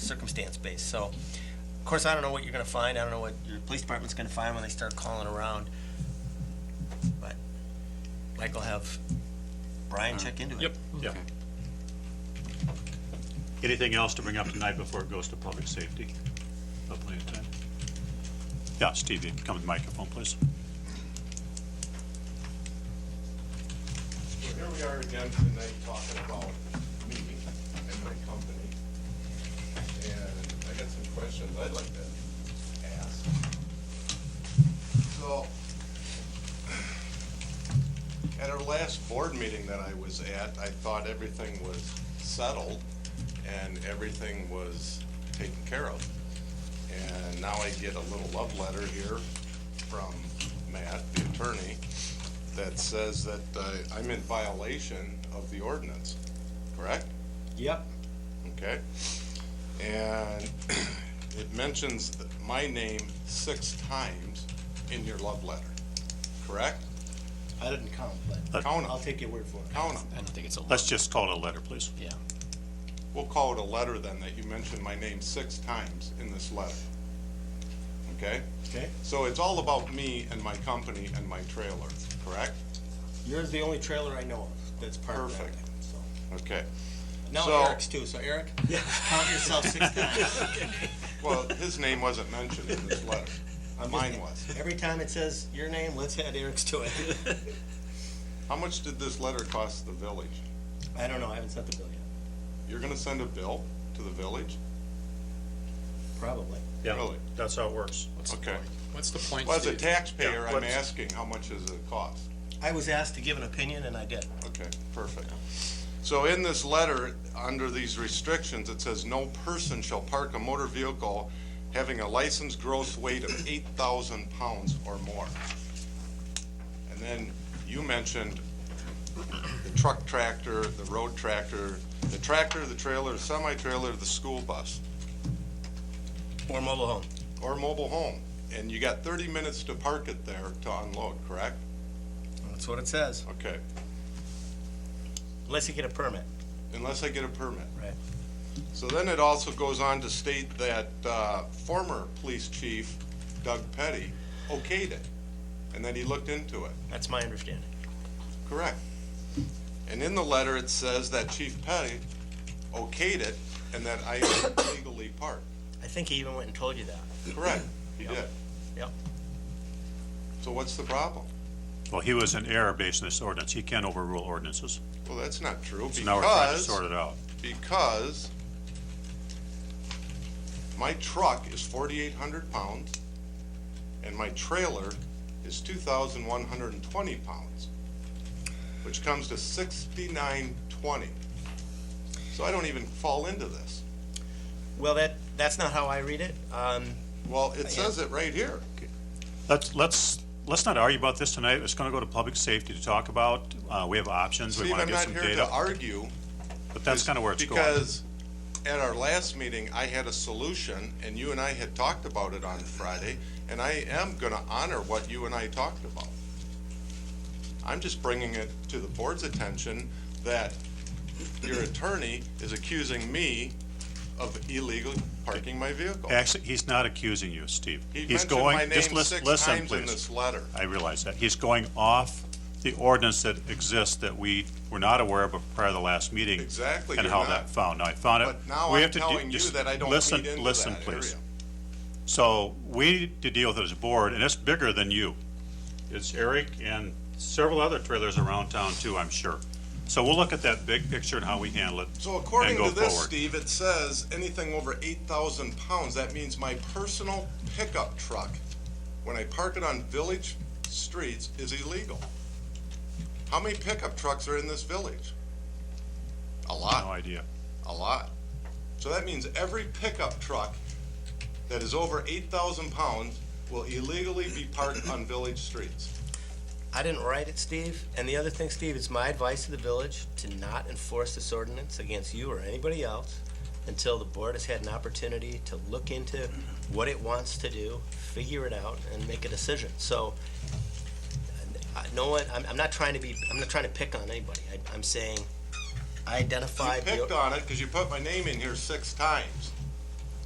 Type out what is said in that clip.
circumstance based. So, of course, I don't know what you're going to find. I don't know what your police department's going to find when they start calling around. But Mike will have Brian check into it. Yep, yep. Anything else to bring up tonight before it goes to public safety? Got plenty of time. Yeah, Steve, you can come to the microphone, please. So here we are again tonight talking about me and my company. And I got some questions I'd like to ask. So, at our last board meeting that I was at, I thought everything was settled and everything was taken care of. And now I get a little love letter here from Matt, the attorney, that says that uh, I'm in violation of the ordinance, correct? Yep. Okay? And it mentions my name six times in your love letter, correct? I didn't count, Uh, but Count 'em. I'll take your word for it. Count 'em. I don't think it's a lot. Let's just call it a letter, please. Yeah. We'll call it a letter then, that you mentioned my name six times in this letter. Okay? Okay? So it's all about me and my company and my trailer, correct? Yours is the only trailer I know of that's parked that way, Perfect. so. Okay. Now So- Eric's too, so Eric, count yourself six times. Well, his name wasn't mentioned in this letter. I'm just- Mine was. Every time it says your name, let's add Eric's to it. How much did this letter cost the village? I don't know, I haven't sent the bill yet, You're gonna send a bill to the village? probably. Really? Oh, That's how it works. Okay. What's the point? Well, as a Steve? taxpayer, Yeah, I'm what's- asking, how much does it cost? I was asked to give an opinion and I did. Okay, perfect. So in this letter, under these restrictions, it says, "No person shall park a motor vehicle having a licensed gross weight of 8,000 pounds or more." And then you mentioned the truck tractor, the road tractor, the tractor, the trailer, semi-trailer, the school bus. Or mobile home. or mobile home, and you got thirty minutes to park it there to unload, correct? That's what it says. Okay, Unless you get a permit. unless I get a permit. Right. So then it also goes on to state that, uh, former police chief Doug Petty okayed it, and that he looked into it, That's my understanding. correct? And in the letter, it says that Chief Petty okayed it, and that I am legally parked, I think he even went and told you that. correct? He Yep. did. Yep. So what's the problem? Well, he was in error based on this ordinance. He can't overrule ordinances. Well, that's not true, because. So now we're trying to sort it out. because my truck is forty-eight hundred pounds and my trailer is two thousand one hundred and twenty pounds, which comes to sixty-nine twenty. So I don't even fall into this. Well, that, that's not how I read it. Um, Well, it says it right here. Let's, let's, let's not argue about this tonight. It's gonna go to public safety to talk about. Uh, we have options. We Steve, wanna I'm get not some here to data. argue. But that's kinda where it's going. Because at our last meeting, I had a solution, and you and I had talked about it on Friday, and I am gonna honor what you and I talked about. I'm just bringing it to the board's attention that your attorney is accusing me of illegally parking my vehicle. Actually, he's not accusing you, Steve. He He's mentioned going. my just name lis- six listen, times in please. this letter. I realize that. He's going off the ordinance that exists that we were not aware of prior to the last meeting. Exactly, And you're how not. that found. Now, I found it. But now Uh, we I'm have to de- telling you just that I don't listen- feed into Listen, that please. area. So we need to deal with it as a board, and it's bigger than you. It's Eric and several other trailers around town too, I'm sure. So we'll look at that big picture and how we handle it. So according and go to this, forward. Steve, it says anything over eight thousand pounds. That means my personal pickup truck, when I park it on village streets, is illegal. How many pickup trucks are in this village? A No lot, idea. a lot. So that means every pickup truck that is over eight thousand pounds will illegally be parked on village streets. I didn't write it, Steve. And the other thing, Steve, it's my advice to the village to not enforce this ordinance against you or anybody else until the board has had an opportunity to look into what it wants to do, figure it out, and make a decision. So, I- no one, I'm, I'm not trying to be, I'm not trying to pick on anybody. I, I'm saying, I You identified. the- picked on it because you put my name in here six times.